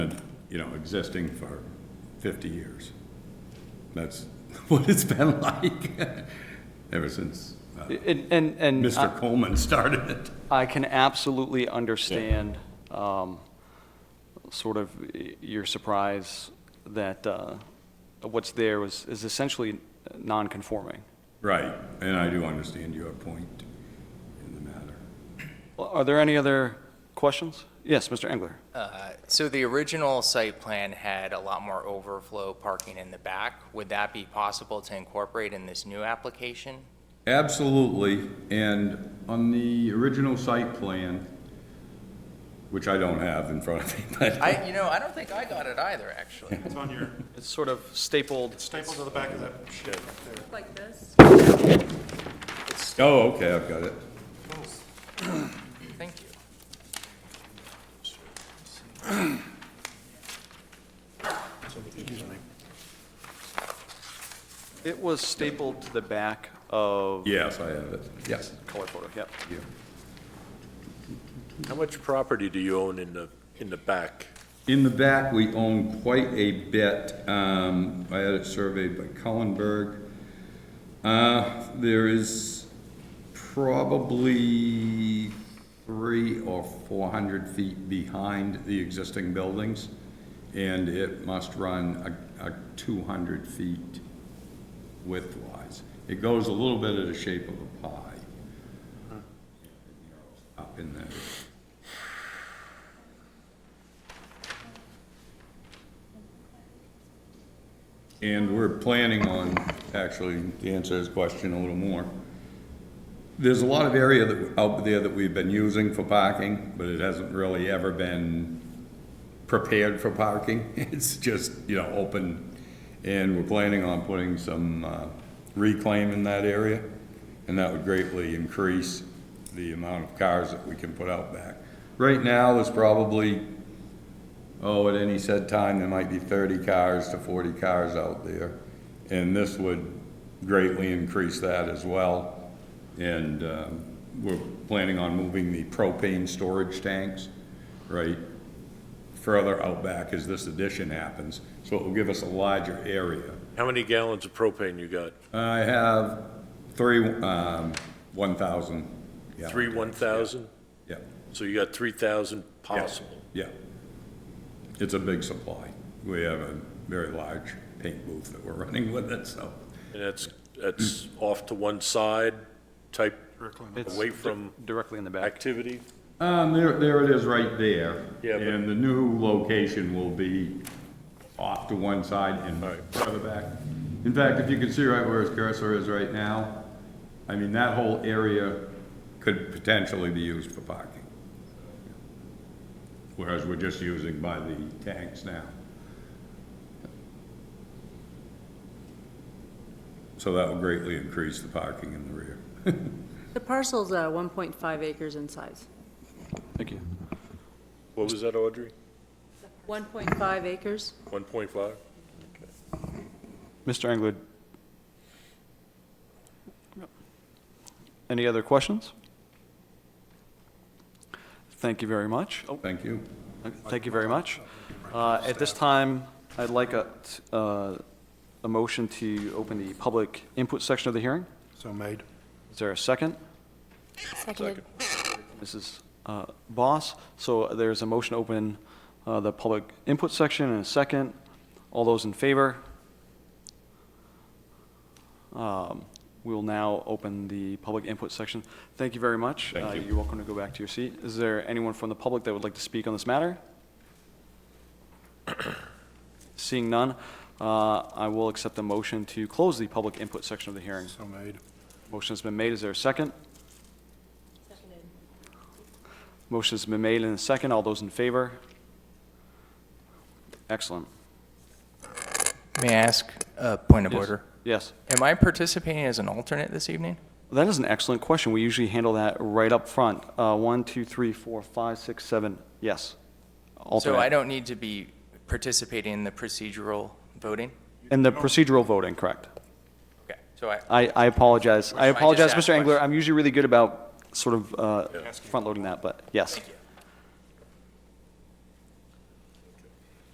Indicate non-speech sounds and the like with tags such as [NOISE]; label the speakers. Speaker 1: you know, existing for 50 years. That's [LAUGHS] what it's been like [LAUGHS] ever since uh,
Speaker 2: And, and, and
Speaker 1: Mr. Coleman started it.
Speaker 2: I can absolutely understand um, sort of y- your surprise that uh, what's there was, is essentially non-conforming.
Speaker 1: Right, and I do understand your point in the matter.
Speaker 2: Well, Are there any other questions? Yes, Mr. Engler?
Speaker 3: Uh, So the original site plan had a lot more overflow parking in the back. Would that be possible to incorporate in this new application?
Speaker 1: Absolutely, and on the original site plan, which I don't have in front of me, [LAUGHS] but.
Speaker 3: I, you know, I don't think I got it either, actually.
Speaker 4: It's on your,
Speaker 2: It's sort of stapled.
Speaker 4: it's stapled to the back of that shed right there.
Speaker 5: like this.
Speaker 1: Oh, okay, I've got it.
Speaker 3: Thank you.
Speaker 2: It was stapled to the back of
Speaker 1: Yes, I have it, yes.
Speaker 2: color photo, yep.
Speaker 6: How much property do you own in the, in the back?
Speaker 1: In the back, we own quite a bit. Um, I had it surveyed by Cullenberg. Uh, there is probably three or four hundred feet behind the existing buildings, and it must run a, a two hundred feet widthwise. It goes a little bit of the shape of a pie. Up in there. And we're planning on, actually, to answer his question a little more. There's a lot of area that, out there that we've been using for parking, but it hasn't really ever been prepared for parking. [LAUGHS] It's just, you know, open. And we're planning on putting some uh, reclaim in that area. And that would greatly increase the amount of cars that we can put out back. Right now, there's probably Oh, at any said time, there might be thirty cars to forty cars out there, and this would greatly increase that as well. And, um, we're planning on moving the propane storage tanks, right, further out back as this addition happens, so it will give us a larger area.
Speaker 6: How many gallons of propane you got?
Speaker 1: I have three, um, one thousand.
Speaker 6: Three 1,000?
Speaker 1: Yeah,
Speaker 6: So you got 3,000 possible?
Speaker 1: yeah. It's a big supply. We have a very large paint booth that we're [LAUGHS] running with it, so.
Speaker 6: And that's, that's off to one side type
Speaker 2: It's
Speaker 6: Away from-
Speaker 2: di- Directly in the back.
Speaker 6: activity?
Speaker 1: Um, there, there it is right there.
Speaker 6: Yeah, but-
Speaker 1: And the new location will be off to one side and further back. In fact, if you can see right where his cursor is right now, I mean, that whole area could potentially be used for parking. Whereas we're just using by the tanks now. So that will greatly increase the parking in the rear.
Speaker 5: The parcel's uh, 1.5 acres in size.
Speaker 2: Thank you.
Speaker 6: What was that, Audrey?
Speaker 5: 1.5 acres?
Speaker 6: 1.5?
Speaker 2: Mr. Engler? Any other questions? Thank you very much. Oh,
Speaker 1: Thank you.
Speaker 2: Thank you very much. Uh, At this time, I'd like a, t- uh, a motion to open the public input section of the hearing.
Speaker 4: So made.
Speaker 2: Is there a second?
Speaker 7: Seconded.
Speaker 2: Mrs. uh, Boss. So there's a motion to open uh, the public input section and a second. All those in favor? Um, We'll now open the public input section. Thank you very much.
Speaker 1: Thank
Speaker 2: Uh,
Speaker 1: you.
Speaker 2: You're welcome to go back to your seat. Is there anyone from the public that would like to speak on this matter? [COUGHS] Seeing none, uh, I will accept the motion to close the public input section of the hearing.
Speaker 4: So made.
Speaker 2: Motion's been made, is there a second? Motion's been made and a second, all those in favor? Excellent.
Speaker 3: May I ask a point of
Speaker 2: Yes.
Speaker 3: order?
Speaker 2: Yes,
Speaker 3: Am I participating as an alternate this evening?
Speaker 2: that is an excellent question, we usually handle that right up front. Uh, one, two, three, four, five, six, seven, yes.
Speaker 3: So
Speaker 2: Alternate.
Speaker 3: I don't need to be participating in the procedural voting?
Speaker 2: And the procedural voting, correct.
Speaker 3: Okay, so I,
Speaker 2: I, I apologize, I
Speaker 3: I just
Speaker 2: apologize,
Speaker 3: asked
Speaker 2: Mr. Engler,
Speaker 3: questions.
Speaker 2: I'm usually really good about sort of, uh,
Speaker 4: Yeah.
Speaker 2: front-loading that, but yes.
Speaker 3: you.